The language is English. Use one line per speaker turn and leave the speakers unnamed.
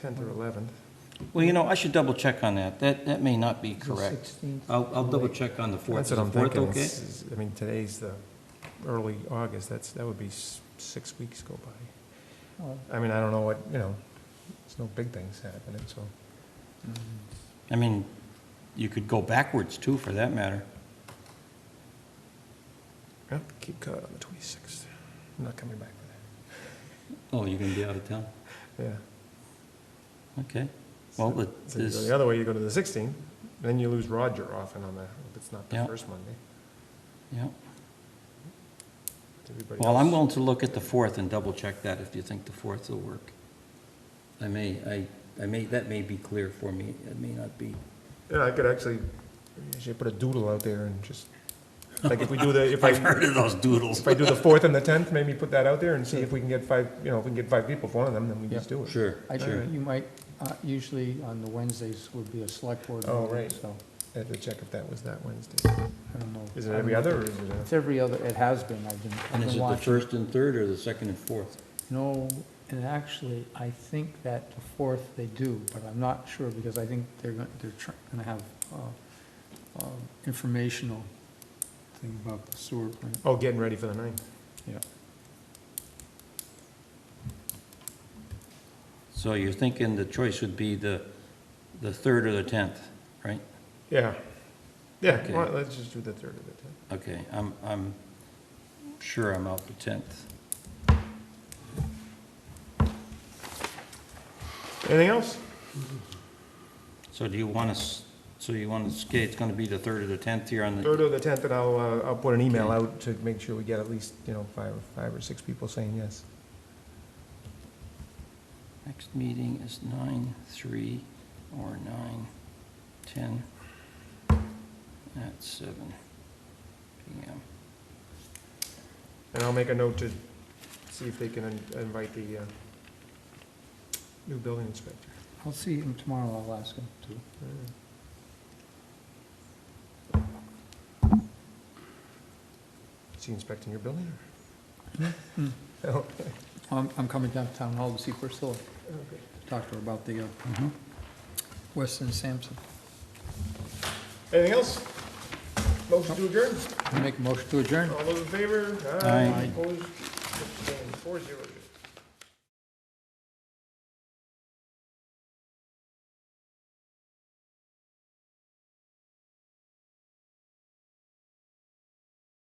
10th or 11th.
Well, you know, I should double check on that. That, that may not be correct. Uh,
16th.
I'll, I'll double check on the fourth.
That's what I'm
Is the fourth
thinking.
okay?
It's- is- I mean, today's the early August, that's, that would be s- six weeks go by.
Well,
I mean, I don't know what, you know, there's no big things happening, so.
I mean, you could go backwards too, for that matter.
yeah, Keep caught on the 26th. I'm not coming back for
Oh, you're gonna be out of town?
that, yeah.
Okay. Well,
So-
but
so you go
this-
The other way, you go to the 16th, then you lose Roger often on the, if it's not the
Yeah.
first Monday.
Yeah.
Everybody
Well, I'm
else-
willing to look at the fourth and double check that if you think the fourth will work. I may, I, I may, that may be clear for me. It may not be.
Yeah, I could actually, I should put a doodle out there and just, like, if we do the, if I,
I've heard of those doodles.
if I do the fourth and the tenth, maybe put that out there and see if we can get five, you know, if we can get five people for one of them, then we just do it.
Sure,
I
sure.
think you might, uh, usually on the Wednesdays would be a select board
Oh,
meeting,
right.
so
I had to check if that was that Wednesday.
I don't know.
Is it
I don't
every
know.
other, or is it
It's every other, it has been, I've been, I've
And is it
been
the
watching.
first and third or the second and fourth?
No, and actually, I think that the fourth they do, but I'm not sure because I think they're, gon- they're tr- gonna have, uh, uh, informational thing about the sewer plant.
a, oh, getting ready for the ninth?
So you're thinking the choice would be the, the third or the tenth, right?
Yeah. Yeah,
Okay.
well, let's just do the third of the tenth.
Okay, I'm, I'm sure I'm out the tenth.
Anything else?
So do you want us, so you want to skate, it's gonna be the third or the tenth here on
Third
the,
of the tenth, and I'll, uh, I'll put an email out to make sure we get at least, you know, five, five or six people saying yes.
next meeting is nine, three, or nine, ten, at seven PM.
And I'll make a note to see if they can in- invite the, uh, new building inspector.
I'll see him tomorrow, I'll ask him to.
Is he inspecting your building?
Hmm.
Oh,
I'm, Um, I'm coming down to town hall to see Priscilla,
okay.
talk to her about the, uh,
Mhm.
Weston Sampson.
Anything else? Motion to adjourn?
Make a motion to adjourn.
All those in favor?
Aye.
Opposed? Abstained. Four zero zero.